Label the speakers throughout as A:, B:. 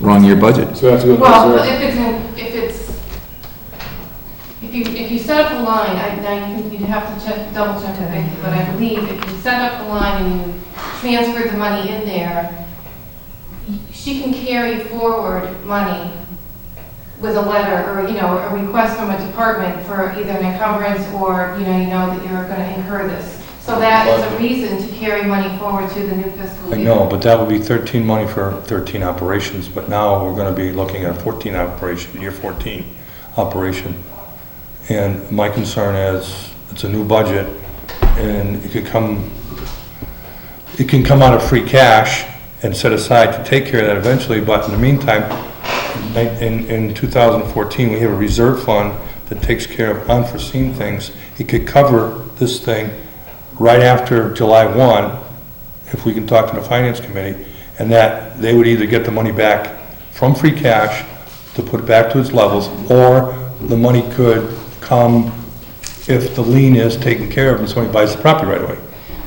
A: run your budget.
B: So that's good.
C: Well, if it's, if it's, if you, if you set up a line, I, now you- you'd have to check, double check the thing, but I believe if you set up a line and you transfer the money in there, y- she can carry forward money with a letter or, you know, a request from a department for either an encumbrance or, you know, you know that you're gonna incur this. So that is a reason to carry money forward to the new fiscal
D: I
C: year.
D: know, but that would be 13 money for 13 operations, but now we're going to be looking at 14 operation, year 14 operation. And my concern is, it's a new budget, and it could come, it can come out of free cash and set aside to take care of that eventually, but in the meantime, ni- in, in 2014, we have a reserve fund that takes care of unforeseen things. It could cover this thing right after July 1, if we can talk to the finance committee, and that they would either get the money back from free cash to put it back to its levels, or the money could come if the lien is taken care of and somebody buys the property right away.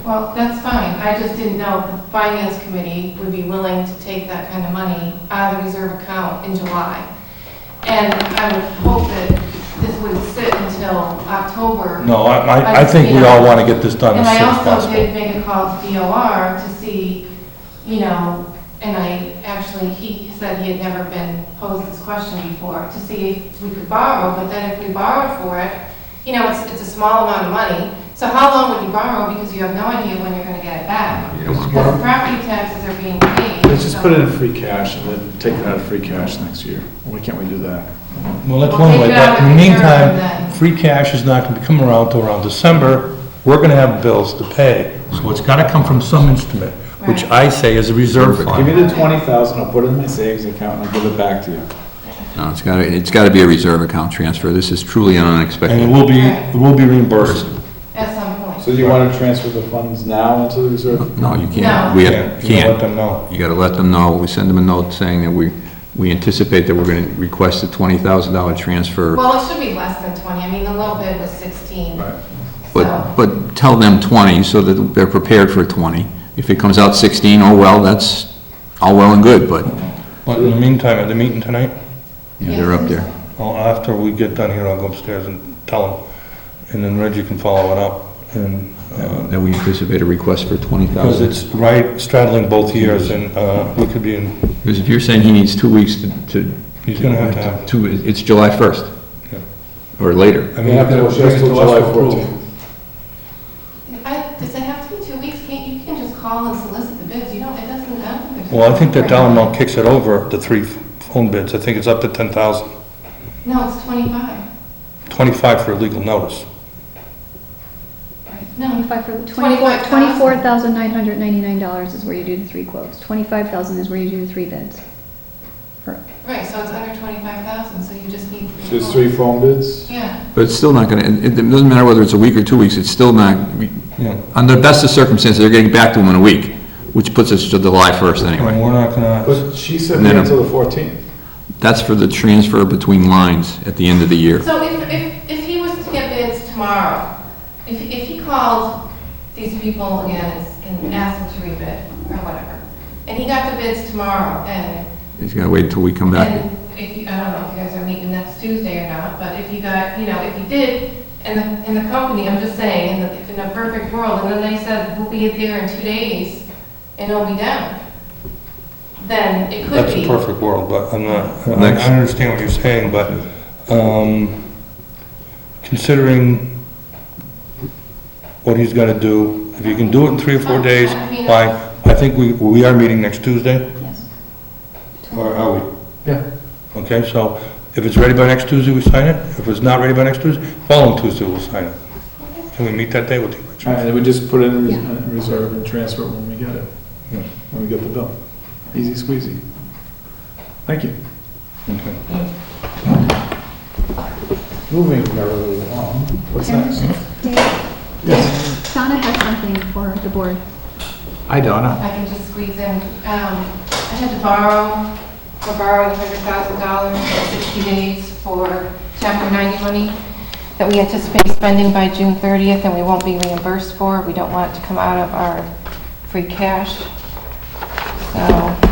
C: Well, that's fine, I just didn't know if the finance committee would be willing to take that kind of money out of the reserve account in July. And I would hope that this would sit until October.
D: No, I, I- I think we all want to get this done
C: And
D: as soon as
C: I also
D: possible.
C: did make a call to DOR to see, you know, and I actually, he said he had never been posed this question before, to see if we could borrow, but then if we borrowed for it, you know, it's, it's a small amount of money, so how long would you borrow, because you have no idea when you're gonna get it back?
A: You don't wanna
C: Because the property taxes are being paid.
B: Let's just
C: so-
B: put it in free cash and then take it out of free cash next year. Why can't we do that?
D: Well, that's
C: We'll
D: one
C: take
D: way,
C: it out
D: but in the
C: of reserve
D: meantime,
C: then.
D: free cash is not going to come around till around December. We're going to have bills to pay, so it's got to come from some instrument, which
C: Right.
D: I say is a reserve
B: Give me
D: fund.
B: the twenty thousand, I'll put it in my savings account and I'll give it back to you.
A: No, it's gotta, it's gotta be a reserve account transfer. This is truly an
D: And it
A: unexpected.
D: will be, it will be reimbursed.
C: At some point.
B: So you wanna transfer the funds now into the reserve?
A: No, you
C: No.
A: can't. We
D: Yeah,
A: have-
D: you gotta Let
A: can't.
D: them know.
A: You gotta let them know. We send them a note saying that we, we anticipate that we're gonna request a twenty thousand dollar transfer.
C: Well, it should be less than twenty, I mean, the low bid was sixteen.
A: But, but tell them 20 so that they're prepared for 20. If it comes out 16, oh well, that's all well and good, but
D: But in the meantime, at the meeting tonight,
A: you know, they're up there.
D: well, after we get done here, I'll go upstairs and tell them, and then Reggie can follow it up, and, uh,
A: That we anticipate a request for
D: because
A: 20,000.
D: it's right straddling both years, and, uh, we could be in,
A: Because if you're saying he needs two weeks to, to.
D: He's gonna have to have-
A: Two, it's July 1st.
D: Yeah.
A: Or later.
D: I
B: You
D: mean,
B: have to
D: it
B: adjust till July fourteenth.
C: I, does it have to be two weeks? Can't, you can just call and solicit the bids, you don't, it doesn't, I don't think.
D: well, I think that dollar amount kicks it over the three phone bids, I think it's up to ten thousand,
C: No, it's twenty-five.
D: twenty-five for a legal notice.
C: No,
E: Twenty-five for,
C: $25,000.
E: twenty-four thousand nine hundred ninety-nine dollars is where you do the three quotes. Twenty-five thousand is where you do the three bids. For-
C: right, so it's under twenty-five thousand, so you just need
B: So
C: three.
B: it's three
C: quotes.
B: phone bids?
C: Yeah,
A: But it's still not going to, it it doesn't matter whether it's a week or two weeks, it's still not,
D: Yeah.
A: under the best of circumstances, they're getting back to him in a week, which puts us to July 1st
D: And
A: anyway.
D: we're not gonna,
B: But she said
A: And then-
B: until the fourteenth.
A: That's for the transfer between lines at the end of the year.
C: so if, if, if he was to get bids tomorrow, if, if he called these people again and and asked them to rebid or whatever, and he got the bids tomorrow, and
A: He's got to wait until we come back.
C: And if you, I don't know if you guys are meeting next Tuesday or not, but if you got, you know, if you did, and the, and the company, I'm just saying, in the, in a perfect world, and then they said, we'll be there in two days, and it'll be down, then it could
D: that's
C: be.
D: a perfect world, but I'm not, I
A: Next.
D: I understand what you're saying, but, um, considering what he's gonna do, if you can do it in three or
C: Oh,
D: four days, fine. I think we, we are meeting next Tuesday,
E: Yes.
D: or are we?
B: Yeah.
D: Okay, so if it's ready by next Tuesday, we sign it. If it's not ready by next Tuesday, following Tuesday, we'll sign it. Can we meet that day with you?
B: And then we just put it in res-
E: Yeah.
B: in reserve and transfer it when we get it,
D: Yeah.
B: when we get the bill. Easy squeezy. Thank you.
D: Okay.
B: Moving merrily along. What's next?
E: Dave,
B: Yes.
E: Donna has something for the board.
B: Hi, Donna.
C: I can just squeeze in, um, I had to borrow, for borrowing hundred thousand dollars for sixty days for chapter ninety money that we anticipate spending by June thirtieth and we won't be reimbursed for. We don't want it to come out of our free cash. So,